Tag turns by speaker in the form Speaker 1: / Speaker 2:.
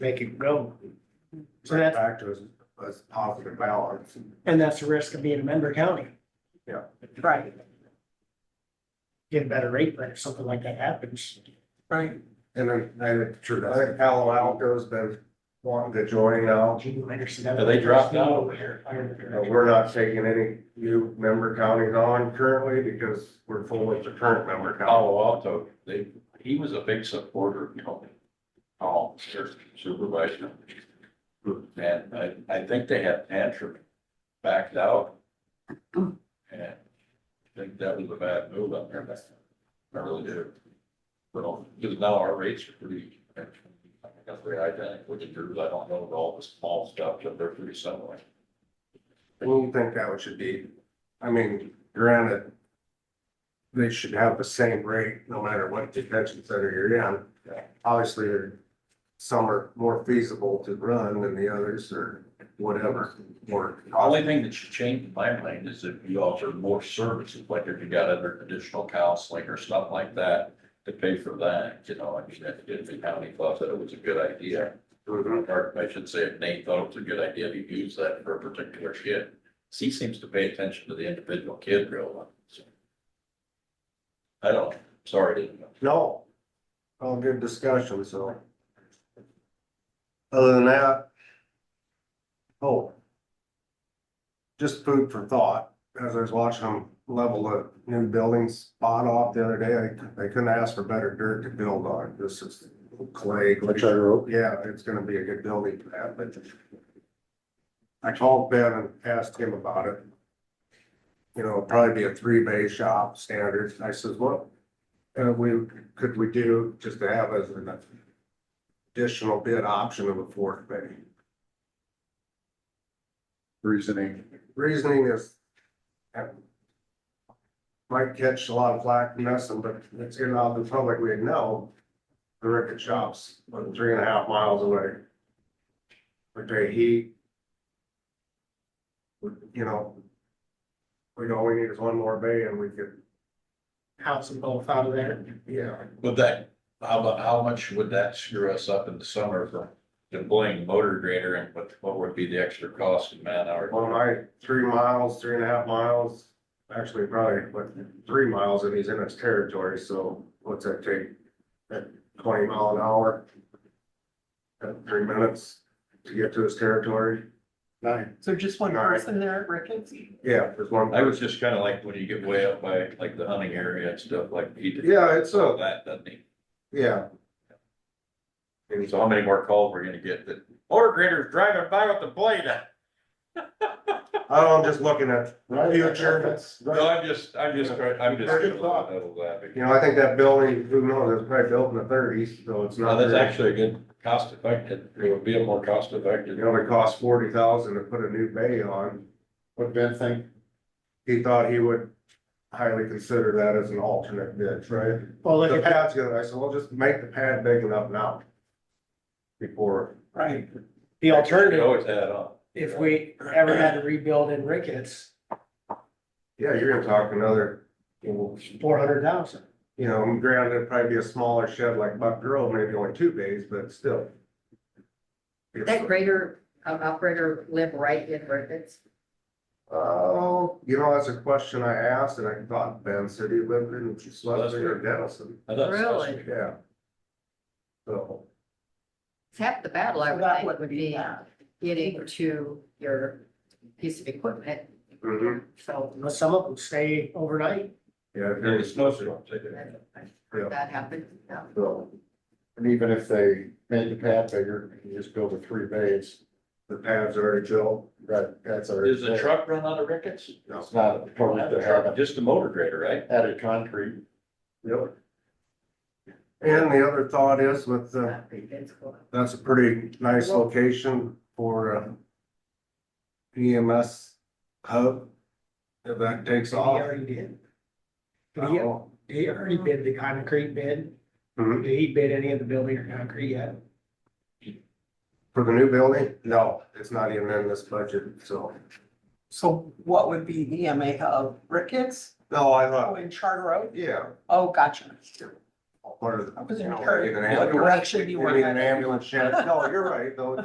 Speaker 1: make it go. So
Speaker 2: That
Speaker 1: that's,
Speaker 2: factor is, is positive balance.
Speaker 1: and that's the risk of being a member county.
Speaker 2: Yeah.
Speaker 1: Right. Get a better rate, but if something like that happens.
Speaker 3: Right.
Speaker 2: And then, I, true, I think Palo Alto's been wanting to join now.
Speaker 1: Yeah,
Speaker 4: they dropped out.
Speaker 2: Uh, We're not taking any new member counties on currently because we're full with the current member county.
Speaker 4: Palo Alto, they, he was a big supporter, you know, all supervisor. And I, I think they had tantrum, backed out. And I think that was a bad move on their part. I really do. But, because now our rates are pretty, I guess they're identical to yours, I don't know about all the small stuff, but they're pretty similar.
Speaker 2: do you Oh, think that would should be, I mean, granted, they should have the same rate no matter what detention center you're in. Obviously, there- some are more feasible to run than the others or whatever, or.
Speaker 4: The Only thing that should change in my mind is if you offer more services, like if you got other additional counseling or stuff like that, to pay for that, you know, I mean, if if the county thought that it was a good idea. Or I should say, if Nate thought it was a good idea to use that for a particular kid, 'cause he seems to pay attention to the individual kid real well. so. I don't, sorry, didn't know.
Speaker 2: No. All good discussion, so. Other than that. Oh. Just food for thought, as I was watching them level the new building spot off the other day, I, they couldn't ask for better dirt to build on, this is clay. Which I wrote. Yeah, it's gonna be a good building for that, but. I called Ben and asked him about it. You know, it'll probably be a three bay shop standards, I says, what, uh, we, could we do just to have as an additional bid option of a fourth bay?
Speaker 5: reasoning.
Speaker 2: Reasoning is uh, might catch a lot of flack from us, but it's in all the public, we know the record shops, about three and a half miles away. We pay heat. We- You know, we know we need is one more bay and we could,
Speaker 1: House and both out of there.
Speaker 2: yeah,
Speaker 4: Would that, how about, how much would that screw us up in the summer for deploying the motor grader and what, what would be the extra cost in man hours?
Speaker 2: Well, my three miles, three and a half miles, actually probably, but three miles and he's in his territory, so what's that take? At twenty mile an hour? At three minutes to get to his territory? Nine.
Speaker 3: So just one
Speaker 2: All right.
Speaker 3: person there at Ricketts?
Speaker 2: Yeah, there's one.
Speaker 4: I was just kind of like when you get way up by like the hunting area and stuff like he did.
Speaker 2: Yeah, it's
Speaker 4: all
Speaker 2: a,
Speaker 4: That, doesn't he?
Speaker 2: yeah.
Speaker 4: And so how many more calls we're gonna get that, motor grader's driving by with the blade out?
Speaker 2: I don't, just looking at future,
Speaker 4: No, I'm just, I'm just, trying- I'm just.
Speaker 2: Very good thought.
Speaker 4: that'll
Speaker 2: you
Speaker 4: laughing.
Speaker 2: know, I think that building, who knows, it's probably built in the thirties, so it's
Speaker 4: No,
Speaker 2: not.
Speaker 4: Oh, that's
Speaker 2: very-
Speaker 4: actually a good cost effective, it would be a more cost effective.
Speaker 2: You know, it cost forty thousand to put a new bay on.
Speaker 5: What Ben think?
Speaker 2: he thought he would highly consider that as an alternate bid, right?
Speaker 1: Well, look
Speaker 2: The
Speaker 1: at that,
Speaker 2: pad's good, I said, well, just make the pad big enough now. Before,
Speaker 1: right. The
Speaker 4: You
Speaker 1: alternative,
Speaker 4: Always add on.
Speaker 1: if we ever had to rebuild in Ricketts,
Speaker 2: yeah, you're gonna talk another,
Speaker 1: four hundred thousand.
Speaker 2: you know, granted, it'd probably be a smaller shed like Buck Grove, maybe only two bays, but still.
Speaker 6: That grader, um, operator live right in Ricketts?
Speaker 2: Oh, you know, that's a question I asked and I thought Ben said he lived in Schlesinger or Dennison,
Speaker 4: I thought-
Speaker 6: Really?
Speaker 2: yeah. So,
Speaker 6: It's half the battle I
Speaker 3: So that
Speaker 6: would think
Speaker 3: would
Speaker 6: would
Speaker 3: be
Speaker 6: be
Speaker 3: that.
Speaker 6: getting to your piece of equipment.
Speaker 2: mhm,
Speaker 6: So
Speaker 1: But some of them stay overnight.
Speaker 2: yeah,
Speaker 4: There's a
Speaker 2: there's,
Speaker 4: snowstorm, take it.
Speaker 6: that-
Speaker 2: Yeah.
Speaker 6: that happened. yeah.
Speaker 5: So, and even if they made the pad bigger, you just build a three bays,
Speaker 2: the pads already built,
Speaker 5: that, that's our.
Speaker 4: Does the truck run out of Ricketts?
Speaker 5: It's not a
Speaker 4: Or
Speaker 5: permit
Speaker 4: not
Speaker 5: to
Speaker 4: the
Speaker 5: have
Speaker 4: truck,
Speaker 5: it
Speaker 4: Just the motor grader, right?
Speaker 5: added concrete.
Speaker 2: Yep. And the other thought is with, uh,
Speaker 6: Not pretty good, so.
Speaker 2: that's a pretty nice location for uh, EMS hub. If that takes
Speaker 1: He
Speaker 2: off.
Speaker 1: already did. Did he,
Speaker 2: Oh,
Speaker 1: did he already bid the concrete bid?
Speaker 2: mhm.
Speaker 1: Did he bid any of the building or concrete yet?
Speaker 2: For the new building? No, it's not even in this budget, so.
Speaker 3: So what would be E EMA hub? Ricketts?
Speaker 2: No, I
Speaker 3: Oh,
Speaker 2: thought,
Speaker 3: in Charter Oak?
Speaker 2: yeah,
Speaker 3: Oh, gotcha.
Speaker 2: part of the.
Speaker 3: I was in
Speaker 2: you know,
Speaker 3: part-
Speaker 2: even
Speaker 3: what
Speaker 2: ambulance-
Speaker 3: direction you were
Speaker 2: even An
Speaker 3: headed.
Speaker 2: ambulance shed, no, you're right, though,